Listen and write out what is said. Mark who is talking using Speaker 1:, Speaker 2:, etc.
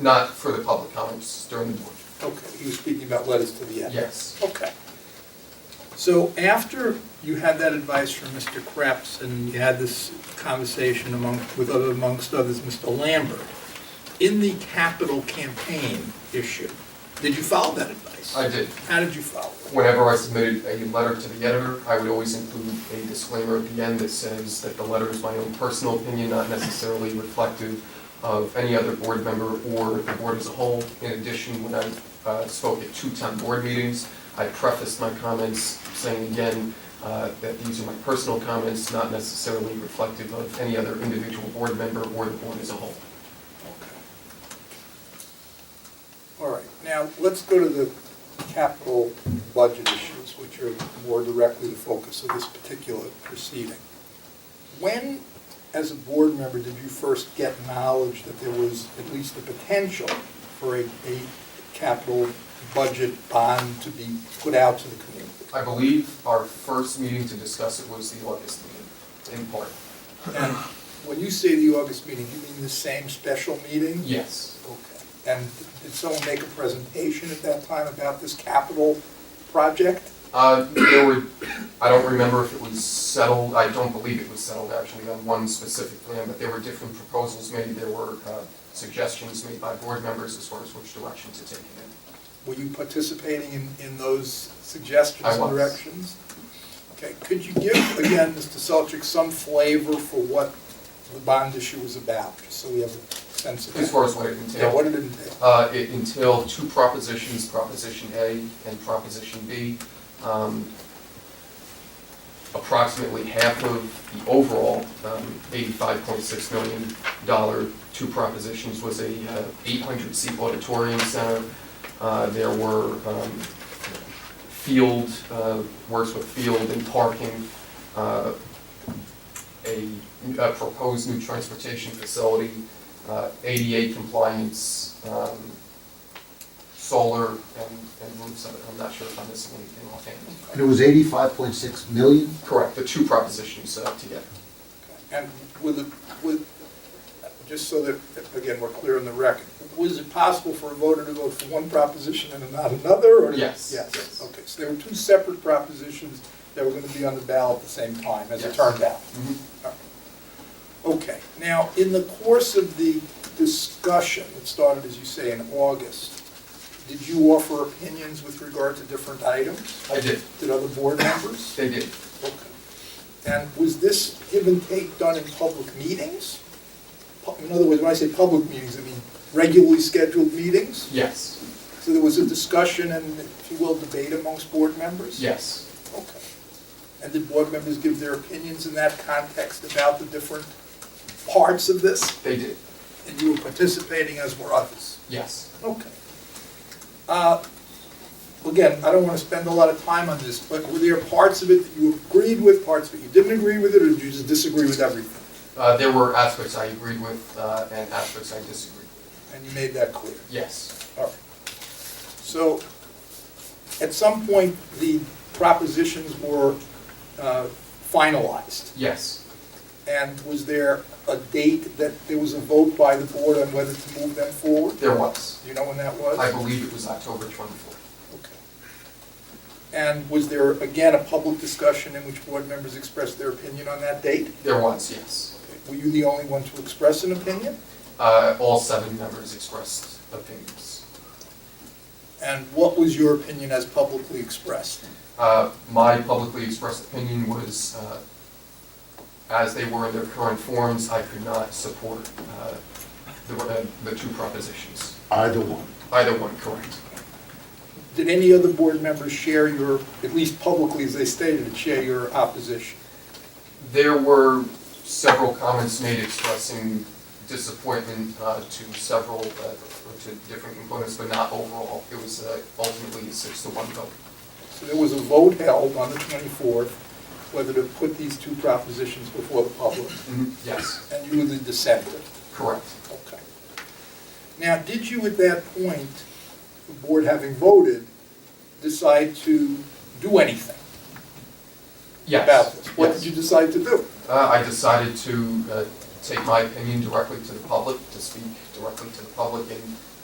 Speaker 1: not for the public comments during the board.
Speaker 2: Okay, he was speaking about letters to the editor.
Speaker 1: Yes.
Speaker 2: Okay. So after you had that advice from Mr. Krebs and you had this conversation among, with other, amongst others, Mr. Lambert, in the capital campaign issue, did you follow that advice?
Speaker 1: I did.
Speaker 2: How did you follow it?
Speaker 1: Whenever I submitted a letter to the editor, I would always include a disclaimer at the end that says that the letter is my own personal opinion, not necessarily reflective of any other board member or the board as a whole. In addition, when I uh, spoke at two town board meetings, I prefaced my comments saying again uh, that these are my personal comments, not necessarily reflective of any other individual board member or the board as a whole.
Speaker 2: Okay. All right, now, let's go to the capital budget issues, which are more directly the focus of this particular proceeding. When, as a board member, did you first get knowledge that there was at least the potential for a, a capital budget bond to be put out to the community?
Speaker 1: I believe our first meeting to discuss it was the August meeting, in part.
Speaker 2: And when you say the August meeting, you mean the same special meeting?
Speaker 1: Yes.
Speaker 2: Okay, and did someone make a presentation at that time about this capital project?
Speaker 1: Uh, there were, I don't remember if it was settled, I don't believe it was settled actually on one specific plan, but there were different proposals made, there were, uh, suggestions made by board members as far as which direction to take it
Speaker 2: Were you participating in, in those suggestions
Speaker 1: I
Speaker 2: and
Speaker 1: was.
Speaker 2: directions? Okay, could you give, again, Mr. Selchik, some flavor for what the bond issue was about, just so we have a sense of
Speaker 1: in. As
Speaker 2: that?
Speaker 1: far as what it
Speaker 2: Yeah, what
Speaker 1: entailed,
Speaker 2: did it entail?
Speaker 1: uh, it entailed two propositions, Proposition A and Proposition B. Um, approximately half of the overall, um, eighty-five point six million dollar, two propositions was a uh, eight hundred seat auditorium center. Uh, There were um, field, uh, works with field and parking, uh, a a proposed new transportation facility, uh, ADA compliance, um, solar and and roofs. I'm not sure if I'm missing anything offhand.
Speaker 3: And it was eighty-five point six million?
Speaker 1: Correct, the two propositions set up together.
Speaker 2: And with, with, just so that, again, we're clear on the record, was it possible for a voter to vote for one proposition and not another, or?
Speaker 1: Yes, yes.
Speaker 2: Yes, okay, so there were two separate propositions that were gonna be on the ballot at the same time, as it
Speaker 1: Yes.
Speaker 2: turned out.
Speaker 1: Mm-hmm.
Speaker 2: Okay, now, in the course of the discussion, it started, as you say, in August, did you offer opinions with regard to different items?
Speaker 1: I did,
Speaker 2: Did other board members?
Speaker 1: they did.
Speaker 2: Okay. And was this give and take done in public meetings? Pu- In other words, when I say public meetings, I mean regularly scheduled meetings?
Speaker 1: Yes,
Speaker 2: So there was a discussion and, if you will, debate amongst board members?
Speaker 1: yes,
Speaker 2: Okay. And did board members give their opinions in that context about the different parts of this?
Speaker 1: they did,
Speaker 2: And you were participating as were others?
Speaker 1: yes.
Speaker 2: Okay. Uh, Again, I don't want to spend a lot of time on this, but were there parts of it that you agreed with, parts that you didn't agree with it, or did you just disagree with everything?
Speaker 1: Uh, There were aspects I agreed with uh, and aspects I disagreed with.
Speaker 2: And you made that clear.
Speaker 1: Yes,
Speaker 2: All right. So, at some point, the propositions were uh, finalized.
Speaker 1: yes,
Speaker 2: And was there a date that there was a vote by the board on whether to move them forward?
Speaker 1: there was.
Speaker 2: Do you know when that was?
Speaker 1: I believe it was October 24th.
Speaker 2: Okay. And was there, again, a public discussion in which board members expressed their opinion on that date?
Speaker 1: There was, yes.
Speaker 2: Were you the only one to express an opinion?
Speaker 1: Uh, All seven members expressed opinions.
Speaker 2: And what was your opinion as publicly expressed?
Speaker 1: Uh, My publicly expressed opinion was, uh, as they were in their current forms, I could not support uh, the uh, the two propositions.
Speaker 3: Either one.
Speaker 1: Either one, correct.
Speaker 2: Did any other board members share your, at least publicly as they stated, it, share your opposition?
Speaker 1: There were several comments made expressing disappointment uh, to several, uh, or to different components, but not overall. It was uh, ultimately a six to one vote.
Speaker 2: So there was a vote held on the 24th whether to put these two propositions before the public,
Speaker 1: Yes,
Speaker 2: and you were the dissenter.
Speaker 1: correct.
Speaker 2: Okay. Now, did you at that point, the board having voted, decide to do anything
Speaker 1: Yes.
Speaker 2: about this? What did
Speaker 1: yes.
Speaker 2: you decide to do?
Speaker 1: Uh, I decided to uh, take my opinion directly to the public, to speak directly to the public in